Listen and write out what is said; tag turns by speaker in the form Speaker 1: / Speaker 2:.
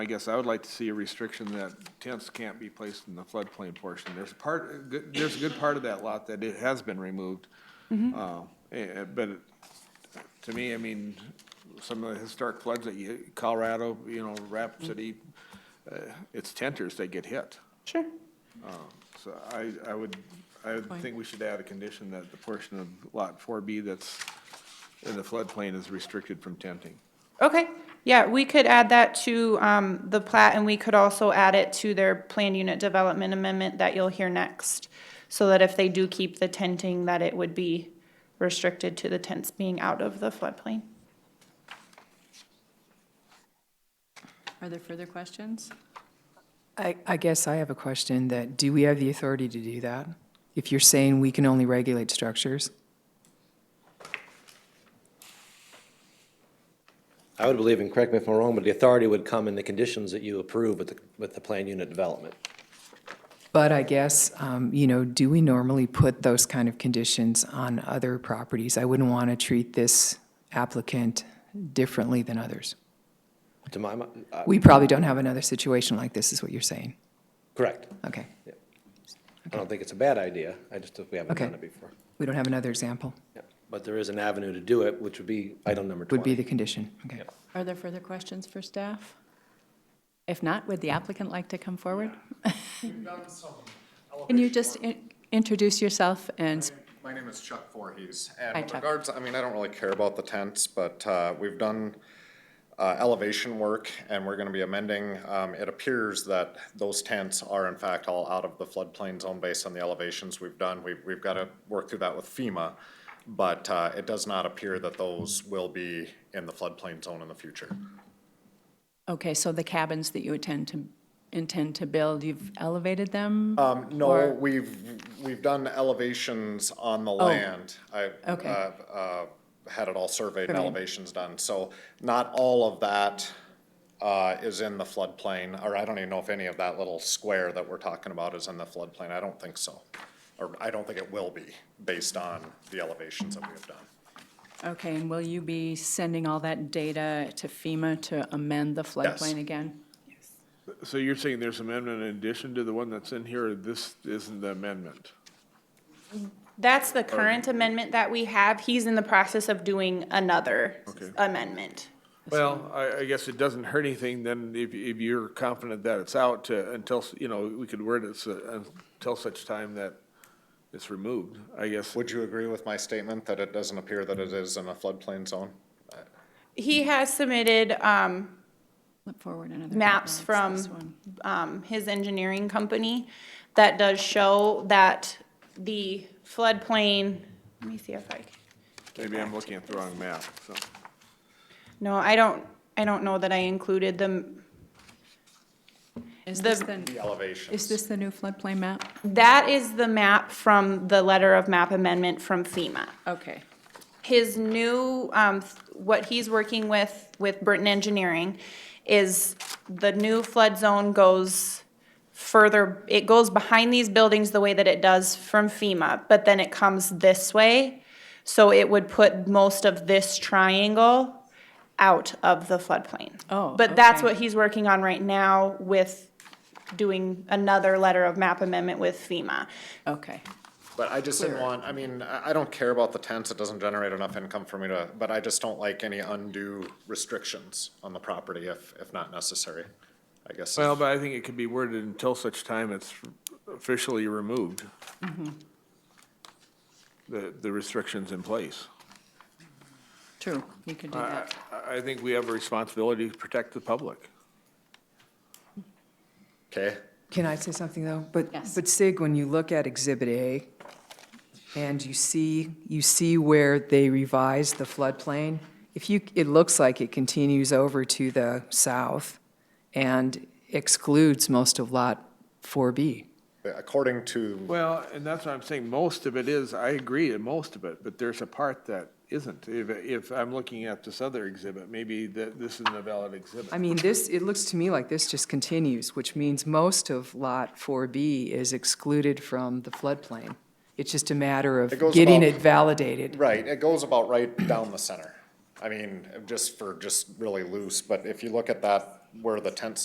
Speaker 1: I guess I would like to see a restriction that tents can't be placed in the floodplain portion. There's a part, a good- there's a good part of that lot that it has been removed. Uh, eh, But it- to me, I mean, some of the historic floods that you, Colorado, you know, Rapid City, uh, it's tenters that get hit.
Speaker 2: Sure.
Speaker 1: So I, I would, I would think we should add a condition that the portion of Lot 4B that's in the floodplain is restricted from tenting.
Speaker 2: Okay, yeah, we could add that to um, the plat, and we could also add it to their planned unit development amendment that you'll hear next, so that if they do keep the tenting, that it would be restricted to the tents being out of the floodplain.
Speaker 3: Are there further questions?
Speaker 4: I, I guess I have a question that, do we have the authority to do that? If you're saying we can only regulate structures?
Speaker 5: I would believe, and correct me if I'm wrong, but the authority would come in the conditions that you approve with the, with the plan unit development.
Speaker 4: But I guess, um, you know, do we normally put those kind of conditions on other properties? I wouldn't want to treat this applicant differently than others.
Speaker 5: To my, mi- uh,
Speaker 4: We probably don't have another situation like this, is what you're saying.
Speaker 5: correct.
Speaker 4: Okay,
Speaker 5: I don't think it's a bad idea. I just, think we haven't
Speaker 4: Okay.
Speaker 5: done it before.
Speaker 4: we don't have another example,
Speaker 5: Yeah. But there is an avenue to do it, which would be item number
Speaker 4: would be
Speaker 5: 20.
Speaker 4: the condition, okay.
Speaker 3: Are there further questions for staff? If not, would the applicant like to come forward? Can you just in- introduce yourself and, s-
Speaker 6: My name is Chuck Voorhees,
Speaker 3: Hi,
Speaker 6: and with
Speaker 3: Chuck.
Speaker 6: regards, I mean, I don't really care about the tents, but uh, we've done uh, elevation work, and we're gonna be amending. um, It appears that those tents are in fact all out of the floodplain zone based on the elevations we've done. We've, we've gotta work through that with FEMA, but uh, it does not appear that those will be in the floodplain zone in the future.
Speaker 3: okay, so the cabins that you intend to, intend to build, you've elevated them?
Speaker 6: Um, no,
Speaker 3: Or- Oh,
Speaker 6: we've, we've done elevations on the land. I,
Speaker 3: Okay.
Speaker 6: uh, uh, had it all surveyed and
Speaker 3: Surveyed.
Speaker 6: elevations done, so not all of that, uh, is in the floodplain, or I don't even know if any of that little square that we're talking about is in the floodplain, I don't think so. Or I don't think it will be, based on the elevations that we have done.
Speaker 3: Okay, and will you be sending all that data to FEMA to amend the floodplain again?
Speaker 1: So you're saying there's amendment in addition to the one that's in here, or this isn't the amendment?
Speaker 2: That's the current amendment that we have. He's in the process of doing another
Speaker 1: Okay.
Speaker 2: amendment.
Speaker 1: Well, I, I guess it doesn't hurt anything then if, if you're confident that it's out to, until, s- you know, we could word it so- until such time that it's removed, I guess.
Speaker 6: Would you agree with my statement that it doesn't appear that it is in a floodplain zone?
Speaker 2: He has submitted um,
Speaker 3: Flip forward another.
Speaker 2: maps
Speaker 3: couple.
Speaker 2: from
Speaker 3: It's this one.
Speaker 2: um, his engineering company that does show that the floodplain, let me see if I, can-
Speaker 1: Maybe I'm looking at the wrong map, so.
Speaker 2: no, I don't, I don't know that I included them.
Speaker 3: Is
Speaker 2: the-
Speaker 3: this the,
Speaker 6: The elevations.
Speaker 3: is this the new floodplain map?
Speaker 2: That is the map from the letter of map amendment from FEMA.
Speaker 3: Okay.
Speaker 2: His new, um, what he's working with, with Burton Engineering, is the new flood zone goes further, it goes behind these buildings the way that it does from FEMA, but then it comes this way. So it would put most of this triangle out of the floodplain.
Speaker 3: Oh,
Speaker 2: But that's
Speaker 3: okay.
Speaker 2: what he's working on right now with doing another letter of map amendment with FEMA.
Speaker 3: Okay.
Speaker 6: But I just didn't want, I mean, I, I don't care about the tents, it doesn't generate enough income for me to, but I just don't like any undue restrictions on the property if, if not necessary, I guess.
Speaker 1: Well, but I think it could be worded until such time it's officially removed. The, the restrictions in place.
Speaker 3: True, you could do
Speaker 1: I,
Speaker 3: that.
Speaker 1: I- I think we have a responsibility to protect the public.
Speaker 6: Okay,
Speaker 4: Can I say something, though? But,
Speaker 3: Yes.
Speaker 4: but Sig, when you look at Exhibit A, and you see, you see where they revised the floodplain, if you, it looks like it continues over to the south and excludes most of Lot 4B.
Speaker 6: according to,
Speaker 1: Well, and that's what I'm saying, most of it is, I agree, and most of it, but there's a part that isn't. If, if I'm looking at this other exhibit, maybe that, this isn't a valid
Speaker 4: I
Speaker 1: exhibit.
Speaker 4: mean, this, it looks to me like this just continues, which means most of Lot 4B is excluded from the floodplain. It's just a matter
Speaker 6: It
Speaker 4: of
Speaker 6: goes
Speaker 4: getting
Speaker 6: about-
Speaker 4: it validated.
Speaker 6: right, it goes about right down the center. I mean, just for, just really loose, but if you look at that, where the tent